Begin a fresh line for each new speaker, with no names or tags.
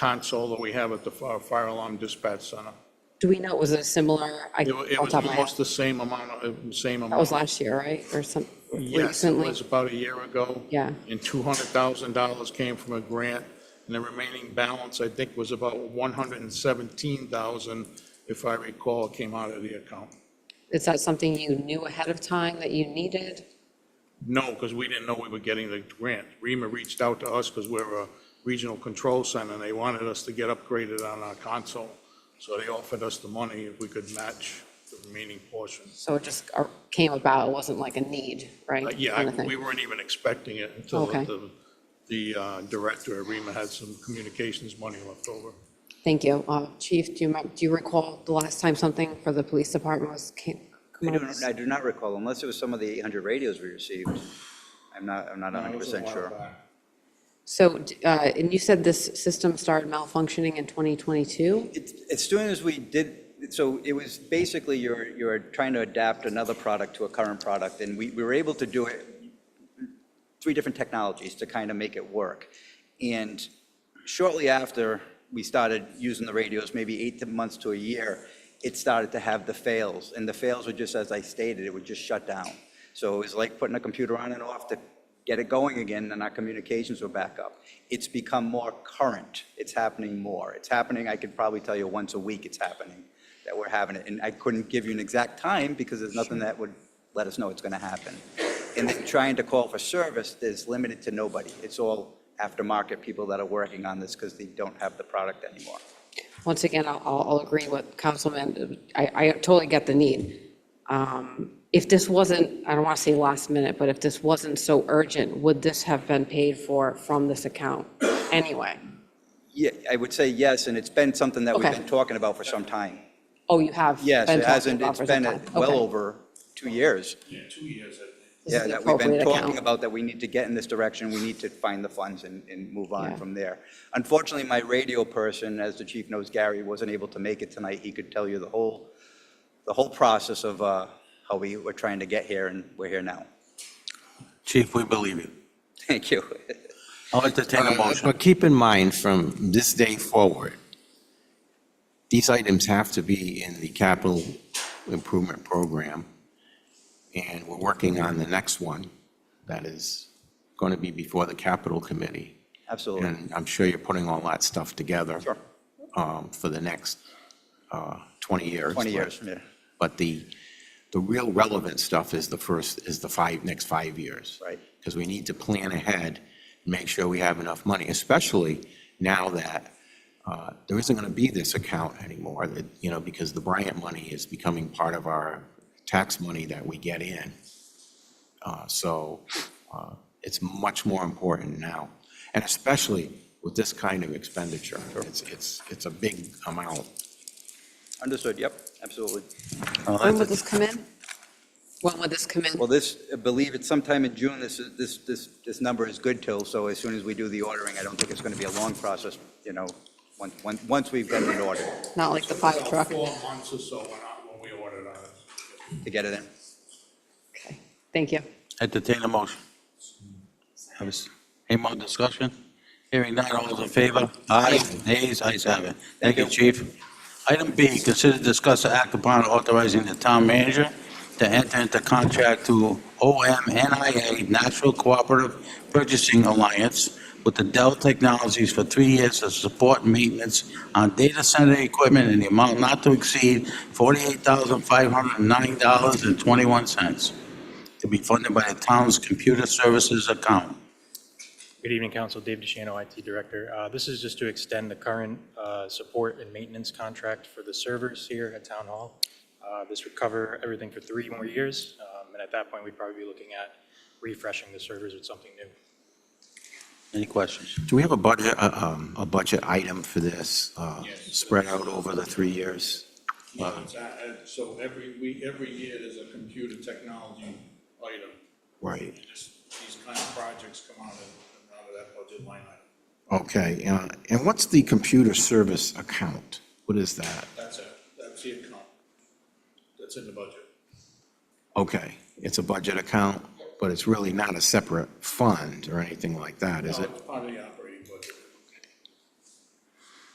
console that we have at the fi- fire alarm dispatch center.
Do we know, was it a similar, I,
It wa- It
off
was
the top of my head,
almost the same amount, of uh, same amount.
that was last year, right? Or some,
Yes, it
recently?
was about a year ago.
Yeah.
And $200,000 came from a grant, and the remaining balance, I think, was about 117,000, if I recall, came out of the account.
Is that something you knew ahead of time that you needed?
No, because we didn't know we were getting the grant. REMA reached out to us because we're a regional control center, and they wanted us to get upgraded on our console. So they offered us the money if we could match the remaining portion.
So it just uh, came about, it wasn't like a need, right?
But Uh, yeah,
kind of
I-
thing?
we weren't even expecting it until
Okay.
the, the uh, director at REMA had some communications money left over.
Thank you. Uh, Chief, do you, mem- do you recall the last time something for the police department was? came-
I
come
do,
out as-
I do not recall, unless it was some of the 800 radios we received. I'm not, I'm not 100% sure.
So, d- uh, and you said this system started malfunctioning in 2022?
It's, it's doing as we did, so it was basically you're, you're trying to adapt another product to a current product, and we, we were able to do it, three different technologies to kind of make it work. And shortly after we started using the radios, maybe eight to- months to a year, it started to have the fails, and the fails were just, as I stated, it would just shut down. So it was like putting a computer on and off to get it going again, and our communications were back up. It's become more current, it's happening more. It's happening, I could probably tell you once a week it's happening, that we're having it, and I couldn't give you an exact time, because there's nothing that would let us know it's gonna happen. And then trying to call for service, there's limited to nobody. It's all aftermarket people that are working on this because they don't have the product anymore.
Once again, I'll, I'll I'll agree with Councilman, I, I totally get the need. Um, If this wasn't, I don't want to say last minute, but if this wasn't so urgent, would this have been paid for from this account anyway?
Yeah, I would say yes, and it's been something that we've
Okay.
been talking about for some time.
Oh, you have?
Yes,
been
it
talking
hasn't,
about
it's
for
been
some time.
well
Okay.
over two years.
Yeah, two years, I think.
This is
Yeah,
the
that we've been
appropriate
talking
account.
about, that we need to get in this direction, we need to find the funds and, and move
Yeah.
on from there. Unfortunately, my radio person, as the chief knows, Gary, wasn't able to make it tonight. He could tell you the whole, the whole process of uh, how we were trying to get here, and we're here now.
Chief, we believe you.
Thank you.
I'll entertain a
Uh,
motion.
But keep in mind, from this day forward, these items have to be in the capital improvement program, and we're working on the next one that is going to be before the capital committee.
Absolutely.
And I'm sure you're putting all that stuff together.
Sure.
um, For the next uh, 20 years.
20 years, yeah.
But the, the real relevant stuff is the first, is the five, next five years.
Right.
Because we need to plan ahead, and make sure we have enough money, especially now that uh, there isn't going to be this account anymore, that, you know, because the Bryant money is becoming part of our tax money that we get in. Uh, So uh, it's much more important now, and especially with this kind of expenditure. It's, it's, it's a big amount.
Understood, yep, absolutely.
When would this come in? When would this come in?
Well, this, I believe it's sometime in June, this, is- this, this, this number is good till, so as soon as we do the ordering, I don't think it's going to be a long process, you know, once, once, once we've gotten it ordered
Not like the fire truck?
Four months or so when I- when we ordered ours.
to get it in.
Okay, Thank you.
Entertain a motion. Have a s- Any more discussion? Hearing none, all those in favor? Aye, nays, ayes have it. Thank you, chief. Item B, consider discuss the act upon authorizing the town manager to enter into contract to OMNIA National Cooperative Purchasing Alliance with the Dell Technologies for three years to support maintenance on data center equipment in the amount not to exceed $48,509.21 to be funded by the town's computer services account.
Good evening, Council. Dave DeShano, IT Director. Uh, This is just to extend the current uh, support and maintenance contract for the servers here at Town Hall. Uh, This would cover everything for three more years, um, and at that point, we'd probably be looking at refreshing the servers with something new.
Any questions?
Do we have a budget, a, um, a budget item for this, uh, spread out over the three years?
Yeah, it's, uh, uh, So every week, every year, there's a computer technology item.
Right.
Just These kind of projects come out of, come out of that budget line item.
Okay, uh, and what's the computer service account? What is that?
That's it, that's the account. That's in the budget.
Okay, it's a budget account, but it's really not a separate fund or anything like that, is
No,
it?
It's part of the operating